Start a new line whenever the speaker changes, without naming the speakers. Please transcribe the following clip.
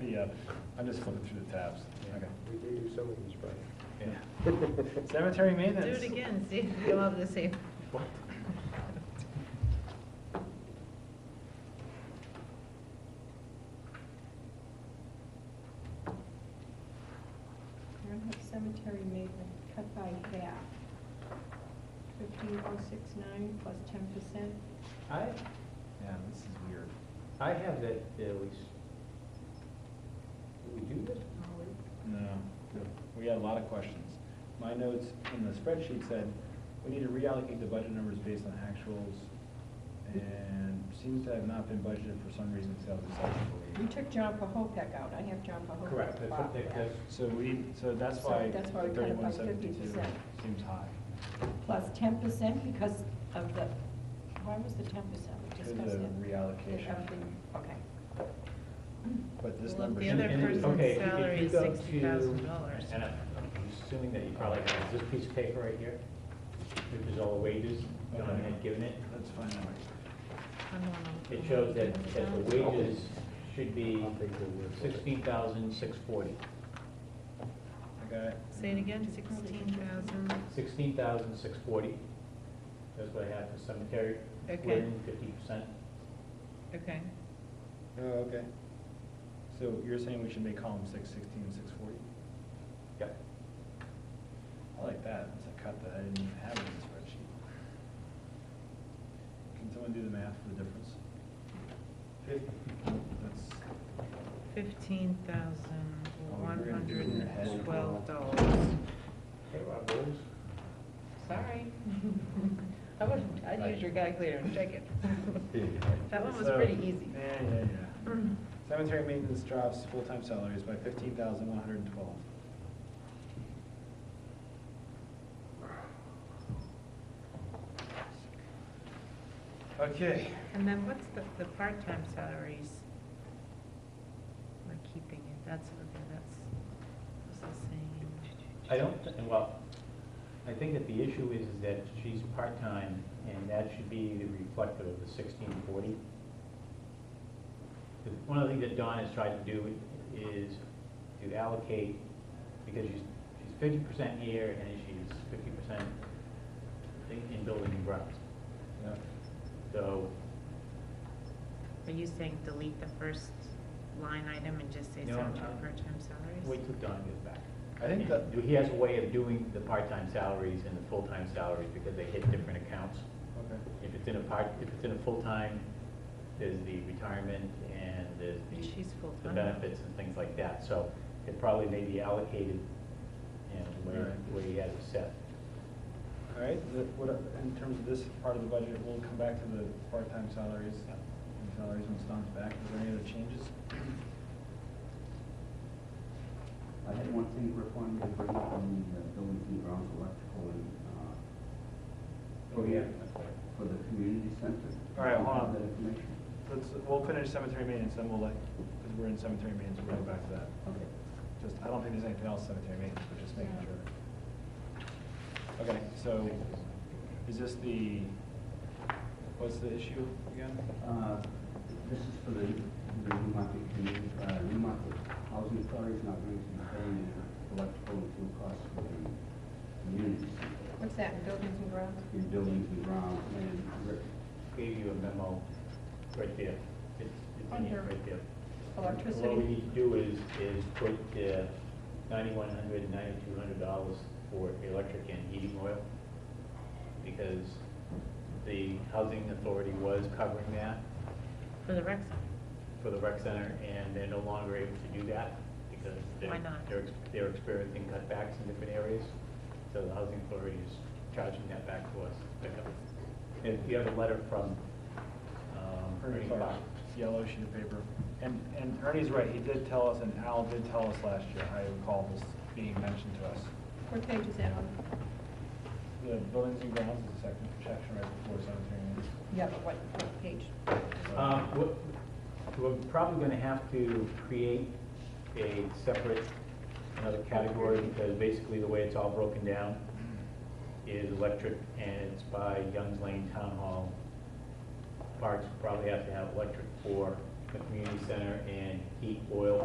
yeah, uh, I'm just flipping through the tabs. Okay.
We do do some of these, right?
Yeah. Cemetery
Do
maintenance.
it again, see, if you'll have the same.
What?
You're gonna have cemetery maintenance cut by half. Fifteen oh six nine plus ten percent.
I,
Yeah, this is weird.
I have that, at least. We do this?
No, we had a lot of questions. My notes in the spreadsheet said, we need to reallocate the budget numbers based on actuals, and seems to have not been budgeted for some reason, sales and
We
subsequently.
took John Pahopek out, I have John Pahopek.
Correct, that's what they-
bought
that's-
So we, so that's
So
why
that's why we cut it by
thirty-one seventy-two
50%.
seems high.
that. Plus ten percent because of the, why was the ten percent? We
Because of
discussed
the
it.
reallocation.
Of the- Okay.
But this
Well, if
number.
the
should-
other
And- and-
person's
okay, if you- if
salary
you
is
go to-
$60,000.
And I'm I'm assuming that you probably have this piece of paper right here, which is all the wages, John had given it.
Let's find out.
I'm on a-
It shows that, that the wages should be sixteen thousand six forty.
I got it.
Say it again, sixteen thousand,
Sixteen thousand six forty. That's what I have for cemetery.
Okay.
Fifty percent.
okay.
Oh, okay. So you're saying we should make column six sixteen, six forty?
Yep.
I like that, it's a cut that I didn't even have in the spreadsheet. Can someone do the math for the difference? That's,
Fifteen thousand, one hundred and twelve
Oh,
dollars.
Okay, Rob, those?
Sorry. I would, I'd use your calculator and check it. That one was
So-
pretty easy. Mm-hmm.
Yeah, yeah, yeah. Cemetery maintenance drops full-time salaries by fifteen thousand one hundred and twelve. Okay.
And then what's the, the part-time salaries? We're keeping it, that's, okay, that's, what's the same?
I don't, thi- well, I think that the issue is is that she's part-time, and that should be the reflective of the sixteen forty. One of the things that Dawn has tried to do is to allocate, because she's, she's fifty percent here, and she's fifty percent in building and grounds.
Yeah.
So,
Are you saying delete the first line item and just say
No,
seven to
I'm-
part-time salaries?
wait till Dawn gets back.
I think that-
And He has a way of doing the part-time salaries and the full-time salaries, because they hit different accounts.
Okay.
If it's in a part, if it's in a full-time, there's the retirement and there's
But
the.
she's
The
full-time.
benefits and things like that, so it probably may be allocated, you know, where,
Right.
where he has it set.
All right, the- what, in terms of this part of the budget, we'll come back to the part-time salaries and salaries when Stan's back. Is there any other changes?
I had one thing Rick wanted me to bring up on the uh, buildings and grounds electrical and, uh. For the community center.
All right, hold
Do you have
on.
That information.
Let's, we'll finish cemetery maintenance, then we'll like, because we're in cemetery maintenance, we'll go back to that.
Okay.
Just, I don't think there's anything else cemetery maintenance, but just making sure. Okay, so is this the, what's the issue again?
Uh, this is for the, the New Market community, uh, New Market Housing Authority is not going to be paying electrical and fuel costs for the community center.
What's that, buildings and grounds?
In buildings and grounds and Rick,
Gave you a memo right there. It's, it's in here,
Under
right there. What we
Electricity?
need to do is, is put uh, ninety-one hundred, ninety-two hundred dollars for electric and heating oil, because the housing authority was covering that
For the rec center,
for the rec center, and they're no longer able to do that, because they're.
Why not?
They're, ex- they're experiencing cutbacks in different areas, so the housing authority is charging that back to us to pick up. If you have a letter from, um, Ernie Fox,
Yellow sheet of paper. And, and Ernie's right, he did tell us, and Al did tell us last year, I recall this being mentioned to us.
What page is that on?
The buildings and grounds is the second section right before cemetery maintenance.
Yeah, but what, what page?
Um, what- We're probably going to have to create a separate, another category, because basically the way it's all broken down is electric, and it's by Youngs Lane Town Hall. Parks probably have to have electric for the community center and heat, oil,